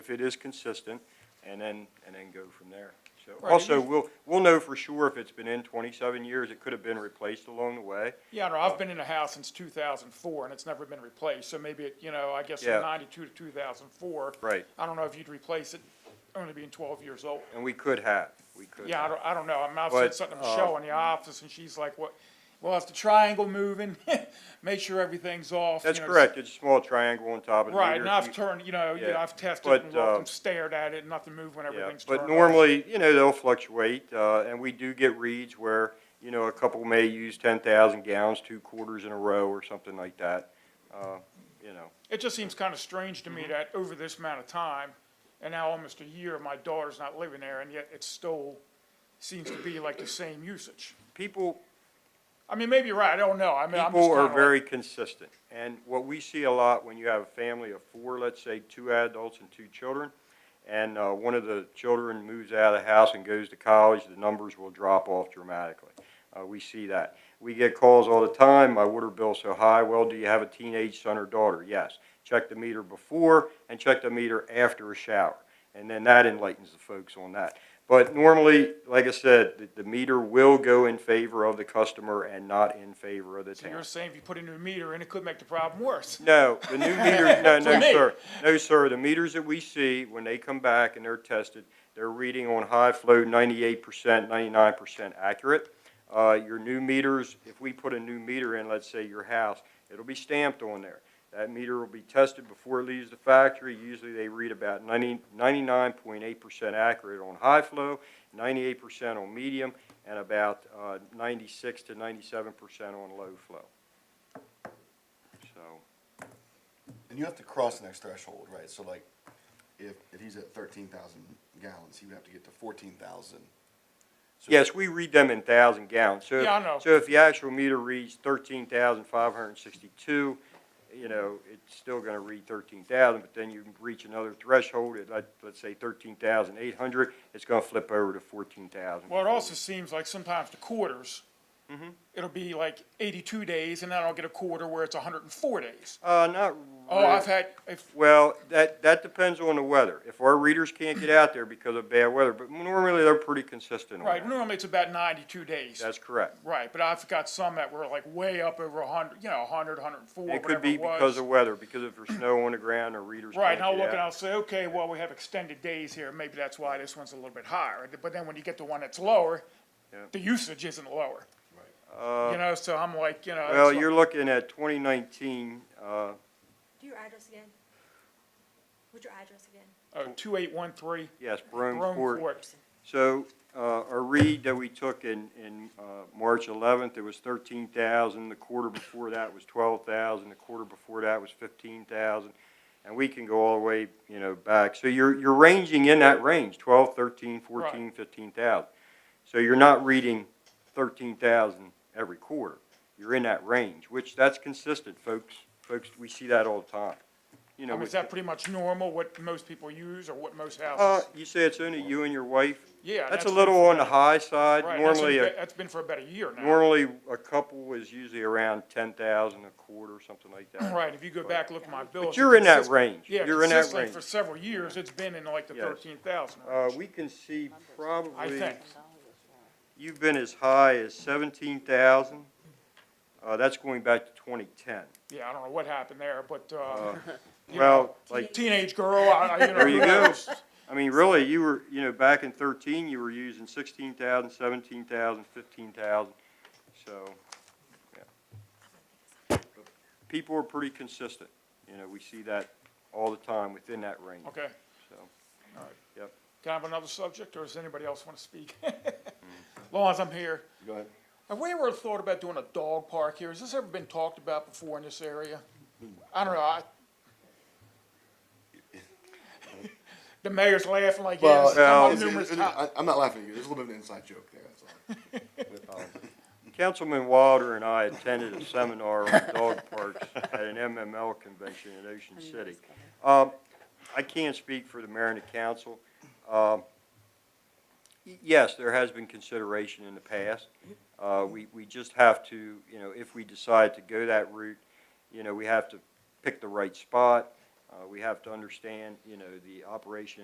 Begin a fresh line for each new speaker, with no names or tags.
if it is consistent, and then, and then go from there. So,
Right, it
also,
is-
we'll, we'll know for sure if it's been in twenty-seven years, it could have been replaced along the way.
Yeah, no, I've been in a house since two thousand four and it's never been replaced, so maybe it, you know, I guess
Yeah.
from ninety-two to two thousand four.
Right.
I don't know if you'd replace it only being twelve years old.
And we could have, we could
Yeah, I
have.
don't, I don't know. I mean, I've
But,
said something to
uh,
Michelle in the office and she's like, what, well, if the triangle moving, make sure everything's off. you
That's
know,
correct, it's a small triangle on top of the meter.
Right, and I've
You-
turned, you know, you know,
Yeah,
I've tested
but,
and
uh,
looked and stared at it, and nothing moved when
Yeah,
everything's turned
but
off.
normally, you know, they'll fluctuate, uh, and we do get reads where, you know, a couple may use ten thousand gallons, two quarters in a row or something like that. Uh, you know,
It just seems kind of strange to me
Mm-hmm.
that over this amount of time, and now almost a year, my daughter's not living there, and yet it still seems to be like the same usage.
people,
I mean, maybe you're right, I don't know, I mean, I'm just
People are
kinda like-
very consistent, and what we see a lot when you have a family of four, let's say, two adults and two children, and, uh, one of the children moves out of the house and goes to college, the numbers will drop off dramatically. Uh, we see that. We get calls all the time, my water bill's so high, well, do you have a teenage son or daughter? Yes. Check the meter before and check the meter after a shower, and then that enlightens the folks on that. But normally, like I said, the, the meter will go in favor of the customer and not in favor of the
So
town.
you're saying if you put a new meter in, it could make the problem worse.
No, the new meter, no,
For
no,
me.
sir. No, sir, the meters that we see, when they come back and they're tested, they're reading on high flow ninety-eight percent, ninety-nine percent accurate. Uh, your new meters, if we put a new meter in, let's say your house, it'll be stamped on there. That meter will be tested before it leaves the factory. Usually they read about 90 99.8 percent accurate on high flow, ninety-eight percent on medium, and about, uh, ninety-six to ninety-seven percent on low flow. So.
And you have to cross the next threshold, right? So like, if, if he's at thirteen thousand gallons, he would have to get to fourteen thousand.
Yes, we read them in thousand gallons, so. if-
Yeah, I know.
So if the actual meter reads thirteen thousand five hundred and sixty-two, you know, it's still gonna read thirteen thousand, but then you reach another threshold at, like, let's say thirteen thousand eight hundred, it's gonna flip over to fourteen thousand.
Well, it also seems like sometimes the quarters,
Mm-hmm.
it'll be like eighty-two days, and then I'll get a quarter where it's hundred and four days.
Uh, not.
Oh, I've
really.
had, if,
Well, that, that depends on the weather. If our readers can't get out there because of bad weather, but normally they're pretty consistent on
right,
that.
normally it's about ninety-two days.
That's correct.
Right, but I've got some that were like way up over hundred, you know, hundred, hundred and four,
It
whatever
could be
it
because
was.
of weather, because if there's snow on the ground, our readers
Right,
can't
and
get out.
I'll look and I'll say, okay, well, we have extended days here, maybe that's why this one's a little bit higher. But then when you get to one that's lower,
Yeah.
the usage isn't lower. You know, Uh, so I'm like, you know.
Well,
it's
you're
like-
looking at 2019, uh,
Do your address again. What's your address again?
Oh, two eight one three,
yes, Brome
Rome
Court.
Court.
So uh, a read that we took in, in uh, March 11th, it was 13,000. The quarter before that was 12,000. The quarter before that was 15,000. And we can go all the way, you know, back. So you're, you're ranging in that range, 12, 13, 14, 15,000. So you're not reading 13,000 every quarter. You're in that range, which that's consistent, folks. Folks, we see that all the time. You
I
know,
mean, is
with-
that pretty much normal, what most people use or what most
Uh,
houses?
you say it's only you and your wife?
Yeah.
That's a little on the high side.
Right, that's
Normally,
been-
a-
That's been for about a year now.
normally a couple is usually around ten thousand, a quarter, something like that.
Right, if you go back, look at my bills.
But you're in that
consist-
range.
Yeah,
You're in that
consistently
range.
for several years, it's been in like the
Yes.
thirteen thousand.
Uh, we can see
I
probably,
think.
you've been as high as seventeen thousand. Uh, that's going back to twenty-ten.
Yeah, I don't know what happened there, but, uh, you know,
Well, like,
teenage girl, I, I, you know.
There you
who
go.
knows?
I mean, really, you were, you know, back in thirteen, you were using sixteen thousand, seventeen thousand, fifteen thousand, so, yeah. But People are pretty consistent, you know, we see that all the time within that range,
Okay,
so.
can I have another subject, or does anybody else want to speak? Long as I'm here,
Go ahead.
have we ever thought about doing a dog park here? Has this ever been talked about before in this area? I don't know, I. The mayor's laughing like, yeah, this has come up
it's-
numerous
it's-
times.
I, I'm not laughing at you. There's a little bit of an inside joke there, that's all.
Councilman Wilder and I attended a seminar on dog parks at an MML convention in Ocean City. Um, I can't speak for the mayor and the council. Um, y- yes, there has been consideration in the past. Uh, we, we just have to, you know, if we decide to go that route, you know, we have to pick the right spot. Uh, we have to understand, you know, the operation